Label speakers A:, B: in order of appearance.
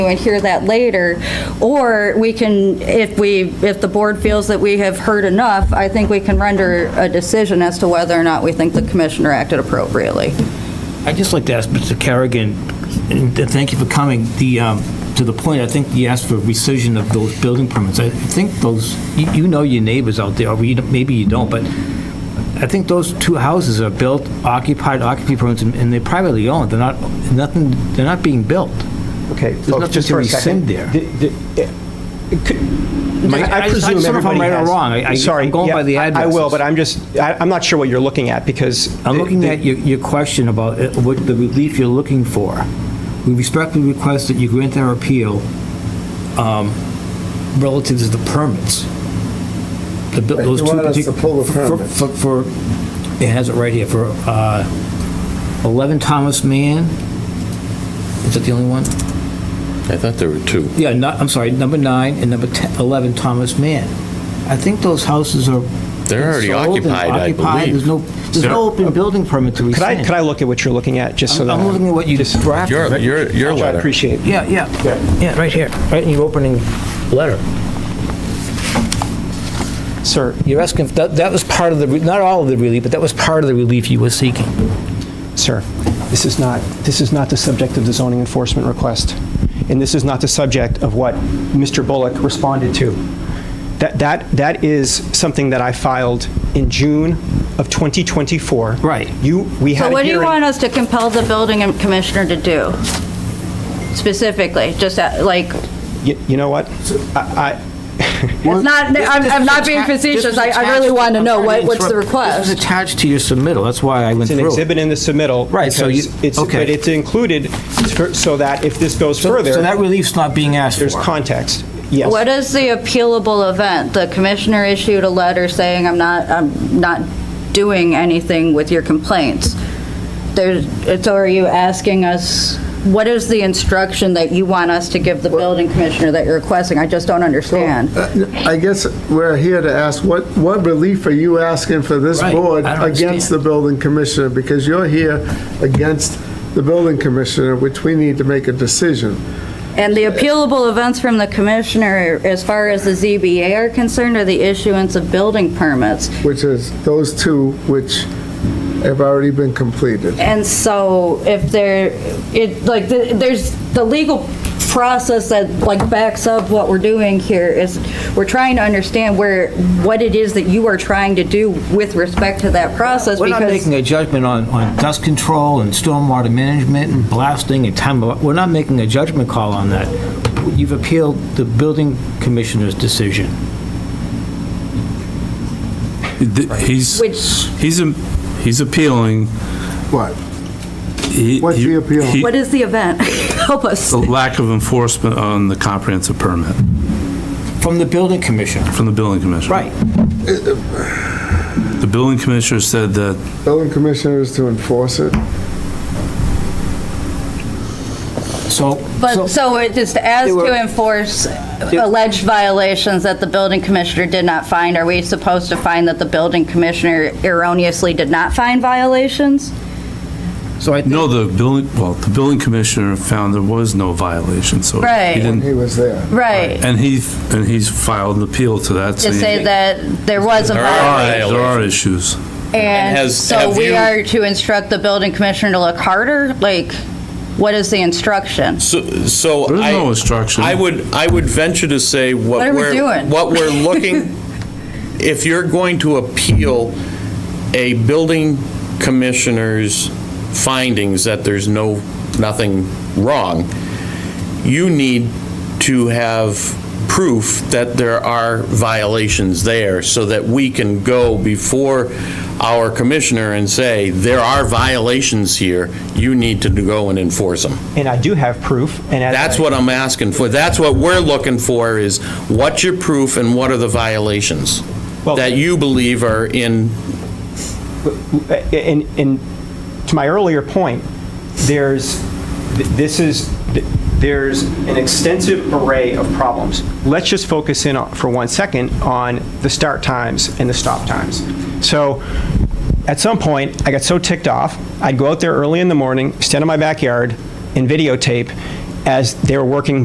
A: and hear that later, or we can, if we, if the board feels that we have heard enough, I think we can render a decision as to whether or not we think the commissioner acted appropriately.
B: I'd just like to ask Mr. Kerrigan, and th- thank you for coming, the, um, to the point, I think you asked for rescission of those building permits. I think those, you you know your neighbors out there, or you don't- maybe you don't, but I think those two houses are built, occupied, occupancy permits, and- and they're privately owned. They're not, nothing, they're not being built.
C: Okay,
B: nothing
C: folks, just
B: to
C: for a
B: rescind
C: second.
B: there.
C: The- the- eh, could-
B: I- I
C: I
B: just- I
C: presume
B: just don't know if I'm
C: everybody
B: right or
C: has-
B: wrong. I- I-
C: Sorry,
B: I'm going
C: yeah,
B: by the
C: I- I will,
B: addresses.
C: but I'm just, I- I'm not sure what you're looking at because.
B: I'm
C: the-
B: looking
C: the-
B: at your, your question about uh, what the relief you're looking for. We respectfully request that you grant our appeal um, relative to the permits. The bu-
D: Right,
B: those
D: you
B: two
D: want us to
B: partic-
D: pull the
B: for- for-
D: permits.
B: For, for- it has it right here, for uh, 11 Thomas Mann, is that the only one?
E: I thought there were two.
B: Yeah, no- I'm sorry, number nine and number 10 11 Thomas Mann. I think those houses are.
E: They're already
B: sold and
E: occupied, I
B: occupied.
E: believe.
B: There's no, there's no
D: uh,
B: open building permit to
C: Could I,
B: rescind.
C: could I look at what you're looking at, just so
B: I'm
C: that?
B: I'm looking at what you just drafted.
E: Your, your, your
C: I
E: letter.
C: appreciate it.
B: Yeah, yeah, yeah, right here, right in your opening letter.
C: Sir,
B: You're asking, that, that was part of the, re- not all of the relief, but that was part of the relief you were seeking.
C: sir, this is not, this is not the subject of the zoning enforcement request. And this is not the subject of what Mr. Bullock responded to. That, that, that is something that I filed in June of 2024.
B: Right.
C: You, we had
A: So
C: a hearing.
A: what do you want us to compel the building and commissioner to do specifically? Just uh, like,
C: You, you know what? I, I,
A: it's not, I'm I'm not being facetious, I I really want to know what what's the
B: This is
A: request.
B: attached to your submittal, that's why I went
C: It's an
B: through it.
C: exhibit in the submittal.
B: Right, so you-
C: because it's-
B: okay.
C: But it's included for- so that if this goes
B: So so that
C: further,
B: relief's not being asked for.
C: there's context. Yes.
A: What is the appealable event? The commissioner issued a letter saying, I'm not, I'm not doing anything with your complaints. There's, it's, are you asking us, what is the instruction that you want us to give the building commissioner that you're requesting? I just don't understand.
D: I guess we're here to ask, what, what relief are you asking for this
B: Right,
D: board
B: I don't
D: against the
B: understand.
D: building commissioner? Because you're here against the building commissioner, which we need to make a decision.
A: And the appealable events from the commissioner, as far as the ZBA are concerned, are the issuance of building permits.
D: which is those two which have already been completed.
A: And so if there, it, like, the- there's the legal process that, like, backs up what we're doing here is, we're trying to understand where, what it is that you are trying to do with respect to that process
B: We're not
A: because
B: making a judgment on, on dust control and stormwater management and blasting and time, of- we're not making a judgment call on that. You've appealed the building commissioner's decision.
F: Th- He's,
A: Which-
F: he's, a- he's appealing.
D: What?
F: He-
D: What's
F: he-
D: the appeal?
F: he-
A: what is the event? Help us.
F: The lack of enforcement on the comprehensive permit
B: From the building commissioner.
F: from the building commissioner.
B: Right.
F: The building commissioner said that,
D: Building commissioner is to enforce it.
B: So.
A: But, so it is as
B: They were-
A: to enforce alleged violations that the building commissioner did not find, are we supposed to find that the building commissioner erroneously did not find violations?
B: So I think.
F: no, the building, well, the building commissioner found there was no violation, so. he
A: Right.
F: didn't-
D: He was there.
A: Right.
F: And he, and he's filed an appeal to that.
A: To say that there was a
E: There are
A: violation.
F: There are issues.
E: And
A: And
E: has-
A: so
E: have
A: we
E: you-
A: are to instruct the building commissioner to look harder? Like, what is the instruction?
E: So, so
F: There is
E: I.
F: no instruction.
E: I would, I would venture to say what
A: What are
E: we're.
A: we doing?
E: What we're looking, if you're going to appeal a building commissioner's findings that there's no, nothing wrong, you need to have proof that there are violations there so that we can go before our commissioner and say, there are violations here, you need to go and enforce them.
C: And I do have proof, and as I-
E: That's what I'm asking for. That's what we're looking for is what's your proof and what are the violations
C: Well-
E: that you believe are in,
C: and, and to my earlier point, there's, th- this is, th- there's an extensive array of problems. Let's just focus in on- for one second on the start times and the stop times. So at some point, I got so ticked off, I'd go out there early in the morning, stand in my backyard and videotape as they were working